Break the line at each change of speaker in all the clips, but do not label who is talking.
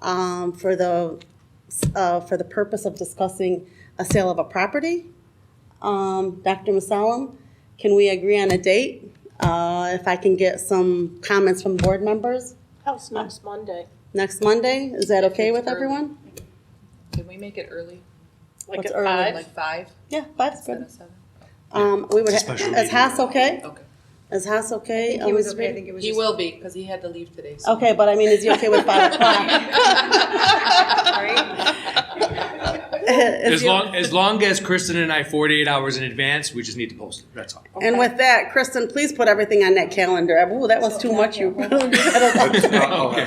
um, for the, uh, for the purpose of discussing a sale of a property. Um, Dr. Masalim, can we agree on a date? Uh, if I can get some comments from board members
House next Monday,
next Monday, is that
If
okay
it's
with
early.
everyone?
Can we make it early?
like
What's
at
early,
five.
Like five
Yeah, five's
instead
good.
of seven?
Um, we would,
It's a
ha-
special
is
meeting.
Haas okay?
Okay.
Is Haas okay?
He was
Elizabeth?
okay, I think it was
He
just.
will be, because he had to leave today. so-
Okay, but I mean, is he okay with five o'clock? Is
As
he-
long, as long as Kristen and I, forty-eight hours in advance, we just need to post it, that's all.
And with that, Kristen, please put everything on that calendar. Ooh, that was too much. You.
I'll have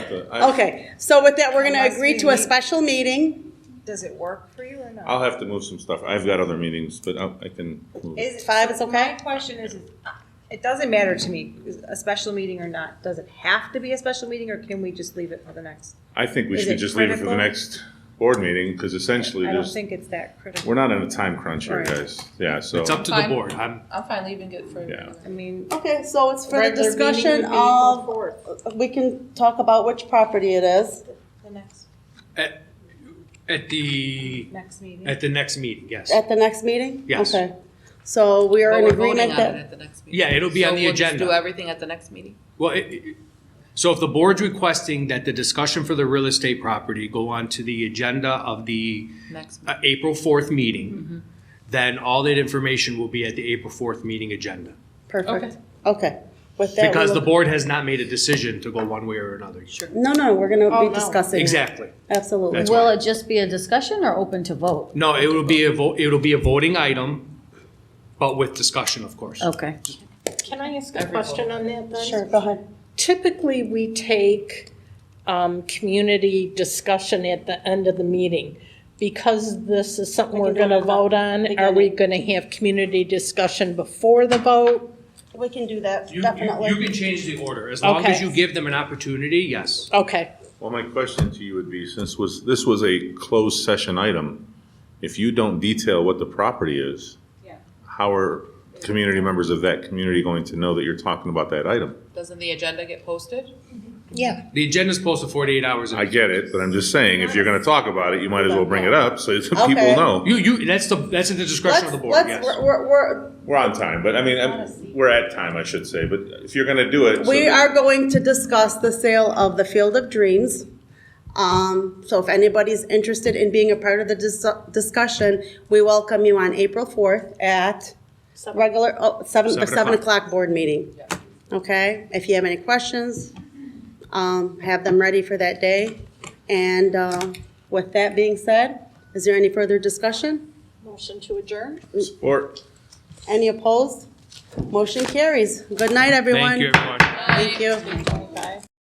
to, I-
Okay, so with that, we're gonna
Unless
agree
we
to a
meet-
special meeting.
Does it work for you or not?
Uh,
I'll have to move some stuff. I've got other meetings, but I I can move.
Is-
Five is okay?
My question is, is, uh, it doesn't matter to me, is a special meeting or not, does it have to be a special meeting or can we just leave it for the next?
I think we
is
should
it
just leave it for the
critical?
next board meeting, because essentially
I don't
there's,
think it's that critical.
we're not in a time crunch here,
Right.
guys. Yeah, so.
It's up to the
Fine.
board, I'm,
I'm fine leaving it for.
Yeah.
I mean,
Okay, so it's for the
Regular meeting would
discussion
be April
of,
4th.
we can talk about which property it is.
the next,
at, at the,
next meeting.
at the next meeting, yes.
At the next meeting?
Yes.
Okay. So we are
But
in
we're voting
agreement
on it
that,
at the next meeting.
Yeah, it'll be
So
on the
we'll just
agenda.
Do everything at the next meeting?
Well, it- it- so if the board's requesting that the discussion for the real estate property go on to the agenda of the
Next. meeting.
uh, April fourth meeting, then all that information will be at the April fourth meeting agenda.
perfect. Okay. With that, we
Because the
will-
board has not made a decision to go one way or another.
Sure.
No, no, we're gonna
Oh,
be
no.
discussing. it.
Exactly.
Absolutely.
That's
Will
why.
it just be a discussion or open to vote?
No, it will be a vote, it'll be a voting item, but with discussion, of course.
Okay.
Can I ask a
Every
question on that then?
Sure, go ahead.
Typically, we take um, community discussion at the end of the meeting. Because this is something
We can
we're
do
going to
it on the
vote on, are
beginning.
we going to have community discussion before the vote?
We can do that,
You, you, you can change the order, as long as
Okay.
you give them an opportunity, yes.
Okay,
Well, my question to you would be, since was, this was a closed session item, if you don't detail what the property is, how are community members of that community going to know that you're talking about that item?
Doesn't the agenda get posted?
yeah.
The agenda's posted forty-eight hours. in
I get it, but I'm just saying, if you're gonna talk about it, you might as well bring it up, so that people
Okay.
know.
You, you, that's the, that's at the discretion of the board, yes.
We're, we're- we're,
We're on time, but I mean, I'm- we're at time, I should say, but if you're gonna do it. so
we
that-
are going to discuss the sale of the Field of Dreams. Um, so if anybody's interested in being a part of the dis- discussion, we welcome you on April fourth at regular, oh, seven, the
Seven
seven
o'clock.
o'clock board meeting. Okay, if you have any questions, um, have them ready for that day. And, uh, with that being said, is there any further discussion?
Motion to adjourn?
Or.
Any opposed? Motion carries. Good night, everyone.
Thank you, everyone.
Thank you.
Twenty-five.